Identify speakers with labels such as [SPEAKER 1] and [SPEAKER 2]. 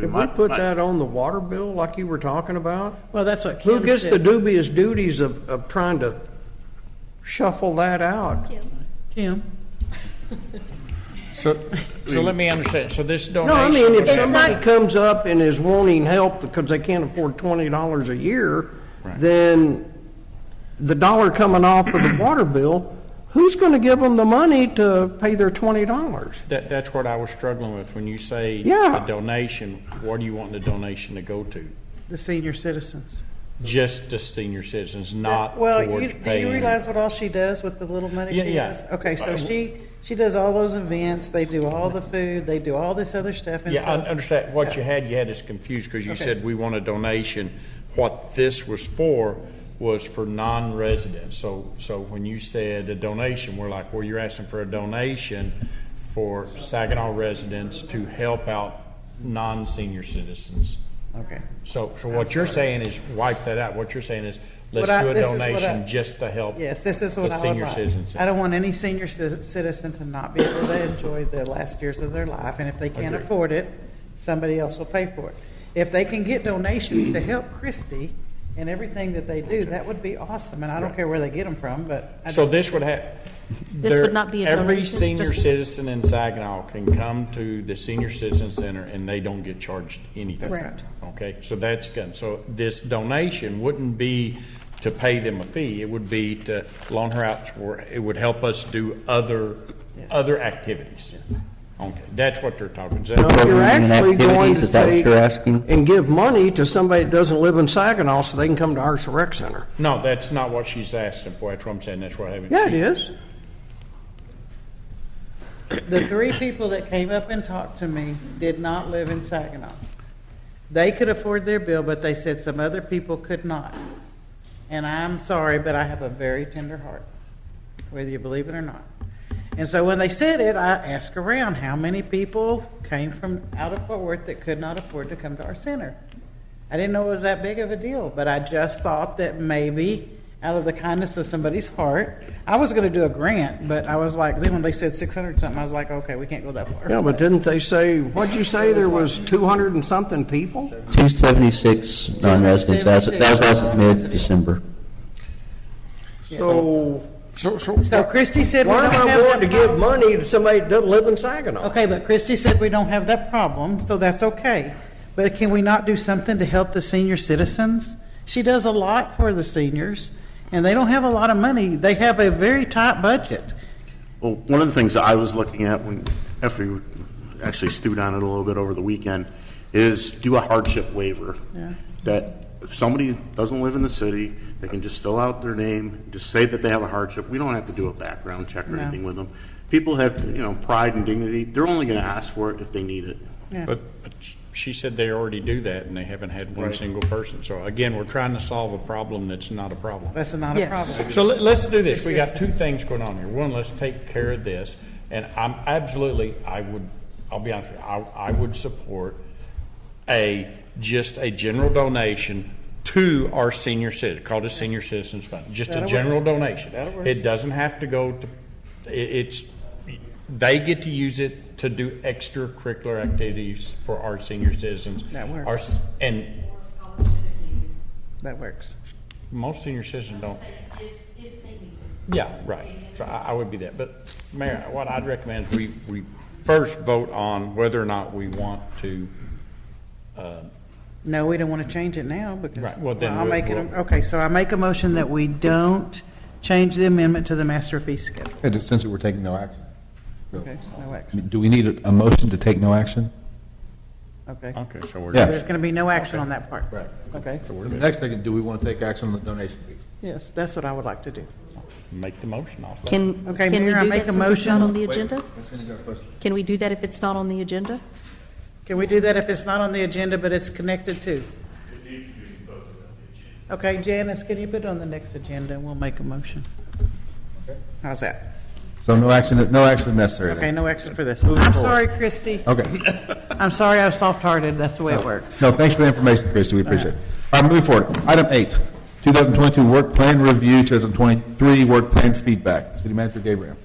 [SPEAKER 1] Could we put that on the water bill like you were talking about?
[SPEAKER 2] Well, that's what Kim
[SPEAKER 1] Who gets the
[SPEAKER 2] said.
[SPEAKER 1] dubious duties of, of trying to shuffle that out?
[SPEAKER 2] Kim,
[SPEAKER 3] So, so let me understand, so this
[SPEAKER 1] No, I mean,
[SPEAKER 3] donation,
[SPEAKER 1] if
[SPEAKER 4] It's
[SPEAKER 3] was-
[SPEAKER 4] not-
[SPEAKER 1] somebody comes up and is wanting help because they can't afford twenty dollars a year, then the dollar coming off of the water bill, who's gonna give them the money to pay their twenty dollars?
[SPEAKER 3] that, that's what I was struggling with, when you say
[SPEAKER 1] Yeah.
[SPEAKER 3] the donation, what do you want the donation to go to?
[SPEAKER 2] the senior citizens.
[SPEAKER 3] Just to senior citizens, not
[SPEAKER 2] Well,
[SPEAKER 3] Uh, towards
[SPEAKER 2] you, do you
[SPEAKER 3] paying.
[SPEAKER 2] realize what all she does with the little money
[SPEAKER 3] Yeah,
[SPEAKER 2] she
[SPEAKER 3] yeah.
[SPEAKER 2] does? Okay, so
[SPEAKER 3] Uh,
[SPEAKER 2] she, she does all those events, they do all the food, they do all this other stuff. and
[SPEAKER 3] Yeah, I
[SPEAKER 2] so-
[SPEAKER 3] understand, what you
[SPEAKER 2] Yeah.
[SPEAKER 3] had, you had us confused, because you
[SPEAKER 2] Okay.
[SPEAKER 3] said we want a donation. What this was for was for non-residents, so, so when you said a donation, we're like, well, you're asking for a donation for Saginaw residents to help out non-senior citizens.
[SPEAKER 2] Okay.
[SPEAKER 3] So, so what you're saying is wipe that out. What you're saying is let's
[SPEAKER 2] What I-
[SPEAKER 3] do a
[SPEAKER 2] this is what I-
[SPEAKER 3] donation just to help.
[SPEAKER 2] Yes, this is
[SPEAKER 3] the
[SPEAKER 2] what I would
[SPEAKER 3] senior citizens.
[SPEAKER 2] like. I don't want any senior ci- citizen to not be able to enjoy the last years of their life, and if they can't
[SPEAKER 3] Agreed.
[SPEAKER 2] afford it, somebody else will pay for it. If they can get donations to help Christie and everything that they do, that would be awesome, and I don't care where they get them from, but I
[SPEAKER 3] So
[SPEAKER 2] just,
[SPEAKER 3] this would have.
[SPEAKER 4] This would not be a
[SPEAKER 3] Every
[SPEAKER 4] donation,
[SPEAKER 3] senior
[SPEAKER 4] just-
[SPEAKER 3] citizen in Saginaw can come to the senior citizen center and they don't get charged anything.
[SPEAKER 4] Correct.
[SPEAKER 3] Okay, so that's good. So this donation wouldn't be to pay them a fee. It would be to loan her out for, it would help us do other, other activities. Okay, that's what they're talking. Is that-
[SPEAKER 1] Now, if you're
[SPEAKER 5] Program and
[SPEAKER 1] actually going
[SPEAKER 5] activities,
[SPEAKER 1] to
[SPEAKER 5] is that what
[SPEAKER 1] take
[SPEAKER 5] you're asking?
[SPEAKER 1] And give money to somebody that doesn't live in Saginaw so they can come to Arts and Rec Center.
[SPEAKER 3] No, that's not what she's asking for. That's what I'm saying. That's what I haven't.
[SPEAKER 1] Yeah, it is.
[SPEAKER 2] the three people that came up and talked to me did not live in Saginaw. They could afford their bill, but they said some other people could not. And I'm sorry, but I have a very tender heart, whether you believe it or not. And so when they said it, I asked around how many people came from out of Fort Worth that could not afford to come to our center. I didn't know it was that big of a deal, but I just thought that maybe out of the kindness of somebody's heart, I was going to do a grant, but I was like, then when they said 600 something, I was like, okay, we can't go that far.
[SPEAKER 1] Yeah, but didn't they say, what'd you say, there was two hundred and something people?
[SPEAKER 5] 276 non-residents, That's- that was as of mid-December.
[SPEAKER 1] So
[SPEAKER 3] So, so,
[SPEAKER 2] So Christie said we
[SPEAKER 1] why
[SPEAKER 2] don't
[SPEAKER 1] am
[SPEAKER 2] have
[SPEAKER 1] I
[SPEAKER 2] that
[SPEAKER 1] wanting to give
[SPEAKER 2] problem.
[SPEAKER 1] money to somebody that doesn't live in Saginaw?
[SPEAKER 2] Okay, but Christie said we don't have that problem, so that's okay. But can we not do something to help the senior citizens? She does a lot for the seniors, and they don't have a lot of money. They have a very tight budget.
[SPEAKER 6] Well, one of the things that I was looking at when, after we actually stewed on it a little bit over the weekend, is do a hardship waiver.
[SPEAKER 2] Yeah.
[SPEAKER 6] That if somebody doesn't live in the city, they can just fill out their name, just say that they have a hardship. We don't have to do a background check or
[SPEAKER 2] No.
[SPEAKER 6] anything with them. People have, you know, pride and dignity. They're only going to ask for it if they need it.
[SPEAKER 3] but, but she said they already do that and they haven't had one single person. So again, we're trying to solve a problem that's not a problem.
[SPEAKER 2] That's not a
[SPEAKER 4] Yes.
[SPEAKER 2] problem.
[SPEAKER 3] So let- let's do this. We got two things going on here. One, let's take care of this. And I'm absolutely, I would, I'll be honest with you, I, I would support a, just a general donation to our senior citizen, called a senior citizens fund, just a
[SPEAKER 2] That'll work.
[SPEAKER 3] general donation.
[SPEAKER 2] That'll work.
[SPEAKER 3] It doesn't have to go to, it, it's, they get to use it to do extracurricular activities for our senior citizens.
[SPEAKER 2] That works.
[SPEAKER 3] Our s- And
[SPEAKER 2] That works.
[SPEAKER 3] most senior citizens don't. Yeah, right. So I, I would be that. But Mayor, what I'd recommend is we, we first vote on whether or not we want to,
[SPEAKER 2] No, we don't want to change it now because.
[SPEAKER 3] Right, well, then
[SPEAKER 2] I'll
[SPEAKER 3] we'll-
[SPEAKER 2] make it,
[SPEAKER 3] we'll-
[SPEAKER 2] okay, so I make a motion that we don't change the amendment to the master fee schedule.
[SPEAKER 7] And since we're taking no action,
[SPEAKER 2] Okay, no
[SPEAKER 7] I
[SPEAKER 2] action.
[SPEAKER 7] mean, do we need a, a motion to take no action?
[SPEAKER 2] Okay.
[SPEAKER 3] okay, so we're.
[SPEAKER 2] There's going to be no action on that part.
[SPEAKER 3] Right.
[SPEAKER 2] Okay.
[SPEAKER 3] so we're
[SPEAKER 7] The
[SPEAKER 3] good.
[SPEAKER 7] next thing, do we want to take action on the donation piece?
[SPEAKER 2] Yes, that's what I would like to do.
[SPEAKER 3] Make the motion off that.
[SPEAKER 4] Can, can we
[SPEAKER 2] Okay,
[SPEAKER 4] do
[SPEAKER 2] Mayor, I
[SPEAKER 4] that
[SPEAKER 2] make a
[SPEAKER 4] since it's not
[SPEAKER 2] motion.
[SPEAKER 4] on the agenda?
[SPEAKER 7] Cindy got a question.
[SPEAKER 4] Can we do that if it's not on the agenda?
[SPEAKER 2] Can we do that if it's not on the agenda, but it's connected to? Okay, Janice, can you put it on the next agenda, and we'll make a motion? How's that?
[SPEAKER 7] So no action, no action necessary
[SPEAKER 2] Okay,
[SPEAKER 7] then?
[SPEAKER 2] no action for this. I'm sorry, Christie.
[SPEAKER 7] Okay.
[SPEAKER 2] I'm sorry, I'm soft-hearted, that's the way it works.
[SPEAKER 7] No, thanks for the information, Christie, we appreciate it. All right, moving forward. Item eight, 2022 work plan review, 2023 work plan feedback. City Manager Gabriel.